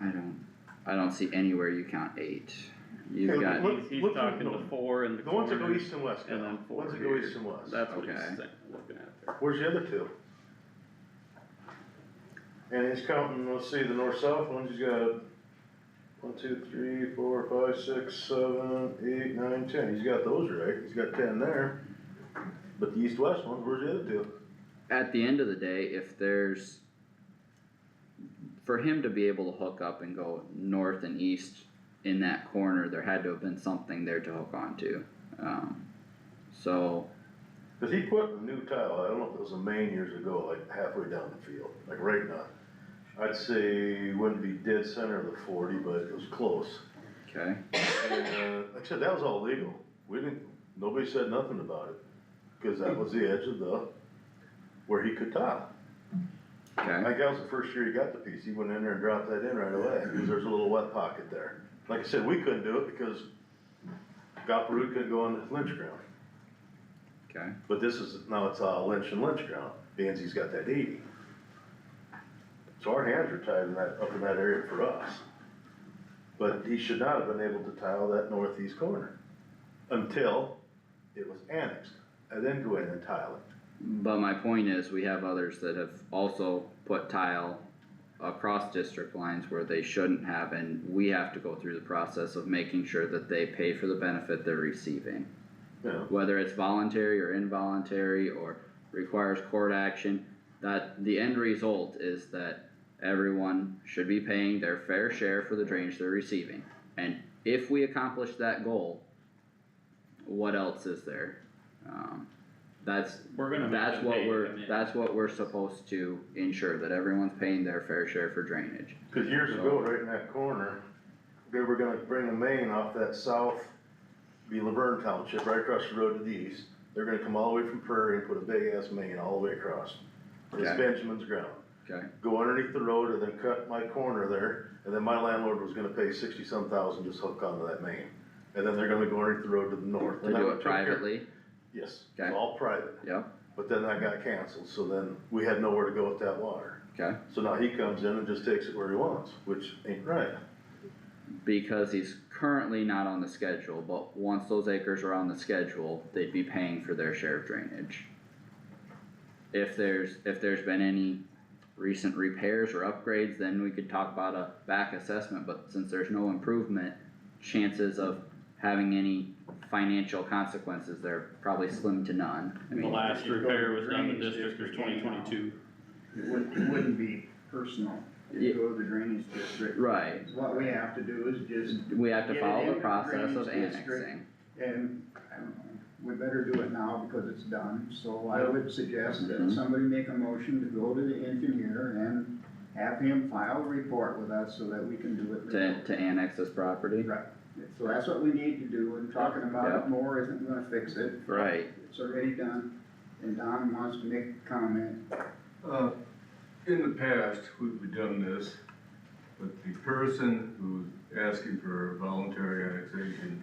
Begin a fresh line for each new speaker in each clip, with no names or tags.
I don't, I don't see anywhere you count eight. You've
Okay,
got,
look-
He's, he's
look-
talking
look-
the four in the
The ones that go
corner.
east and west,
and
now,
then
the
four
ones that go
here.
east and west.
That's what he's
Okay.
saying, looking at there.
Where's the other two? And he's counting, let's see, the north-south ones, he's got one, two, three, four, five, six, seven, eight, nine, ten, he's got those right, he's got ten there. But the east-west ones, where's the other two?
at the end of the day, if there's, for him to be able to hook up and go north and east in that corner, there had to have been something there to hook onto. Um, so,
Cause he put a new tile, I don't know if it was a main years ago, like halfway down the field, like right now. I'd say wouldn't be dead center of the forty, but it was close.
okay,
And, uh, like I said, that was all legal. We didn't, nobody said nothing about it, because that was the edge of the, where he could tile. I
okay,
think that was the first year he got the piece. He went in there and dropped that in right away, because there's a little wet pocket there. Like I said, we couldn't do it because Gopperoot couldn't go on the lynch ground.
okay.
But this is, now it's uh, lynch and lynch ground. Danzy's got that eighty. So our hands are tied in that, up in that area for us. But he should not have been able to tile that northeast corner until it was annexed. And then go in and tile it.
But my point is, we have others that have also put tile across district lines where they shouldn't have, and we have to go through the process of making sure that they pay for the benefit they're receiving.
You know,
Whether it's voluntary or involuntary or requires court action, that the end result is that everyone should be paying their fair share for the drainage they're receiving. And if we accomplish that goal, what else is there? Um, that's,
We're gonna. make
that's
them
what
pay to
we're,
come in.
that's what we're supposed to ensure, that everyone's paying their fair share for drainage.
Cause years ago, right in that corner, they were gonna bring a main off that south, be Laverne Township, right across the road to the east. They're gonna come all the way from Prairie and put a big ass main all the way across. It's
Okay.
Benjamin's ground.
Okay,
go underneath the road and then cut my corner there, and then my landlord was gonna pay sixty-some thousand just hook onto that main. And then they're gonna go underneath the road to the north.
to
And that
do
would
it
take care-
privately,
Yes,
Okay.
it's all private,
yep,
but then that got canceled, so then we had nowhere to go with that water.
okay,
So now he comes in and just takes it where he wants, which ain't right.
because he's currently not on the schedule, but once those acres are on the schedule, they'd be paying for their share of drainage. If there's, if there's been any recent repairs or upgrades, then we could talk about a back assessment, but since there's no improvement, chances of having any financial consequences there are probably slim to none. I
The
mean,
last
If you go
repair
to the
was done in
drainage
district was
district
twenty
again now.
twenty-two.
It wouldn't, it wouldn't be personal,
Yeah.
you go to the drainage district.
right,
What we have to do is just,
we have to
Get it
follow
in
the
the
process
drainage
of
district.
annexing,
and, I don't know, we better do it now because it's done, so I
Yeah.
would suggest that
Mhm.
somebody make a motion to go to the engineer and have him file a report with us so that we can do it.
to, to annex this property.
Right, so that's what we need to do, and talking about
Yeah.
it more isn't gonna fix it,
Right,
it's already done, and Don wants to make a comment.
Uh, In the past, we've done this, but the person who's asking for voluntary annexation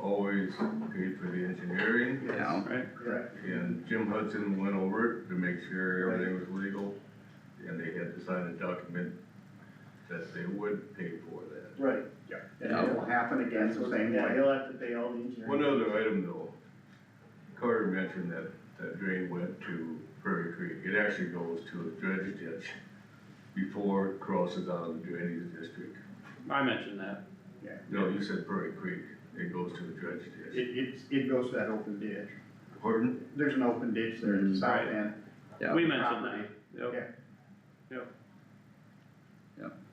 always paid for the engineering,
you know,
Correct.
and Jim Hudson went over it to make sure everything was legal, and they had to sign a document that they would pay for that.
Right,
And it will happen again
that's
the
what,
same
yeah,
way.
he'll have to pay all the engineering.
One other item though, Carter mentioned that that drain went to Prairie Creek, it actually goes to a dredge ditch before it crosses out of the drainage district.
I mentioned that.
No, you said Prairie Creek, it goes to the dredge ditch.
It, it's, it goes to that open ditch.
Pardon?
There's an open ditch there at the south
Right.
end.
yeah.
We mentioned that.
Yeah.
Yep.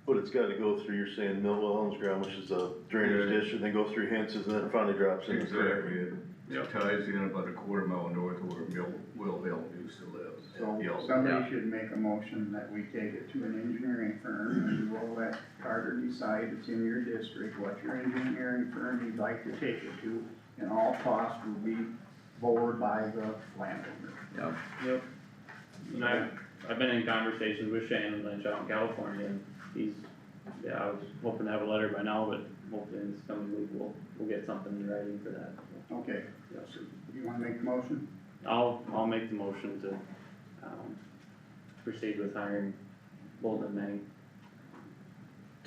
But it's gotta go through, you're saying Millwell Homes ground, which is a drainage
Yeah.
ditch, and then go through Hens's, and then it finally drops in. the creek.
Exactly,
Yep.
it ties in about a quarter mile north of where Bill, Will Hill used to live.
So
Yeah.
somebody should make a motion that we take it to an engineering firm and we'll let Carter decide it's in your district, what your engineering firm you'd like to take it to, and all costs will be borne by the landowner.
Yep.
Yep. And I've, I've been in conversations with Shannon Lynch out in California, and he's, yeah, I was hoping to have a letter by now, but hopefully in this coming week, we'll, we'll get something in writing for that.
Okay, so you wanna make the motion?
I'll, I'll make the motion to, um, proceed with hiring Bolden Manning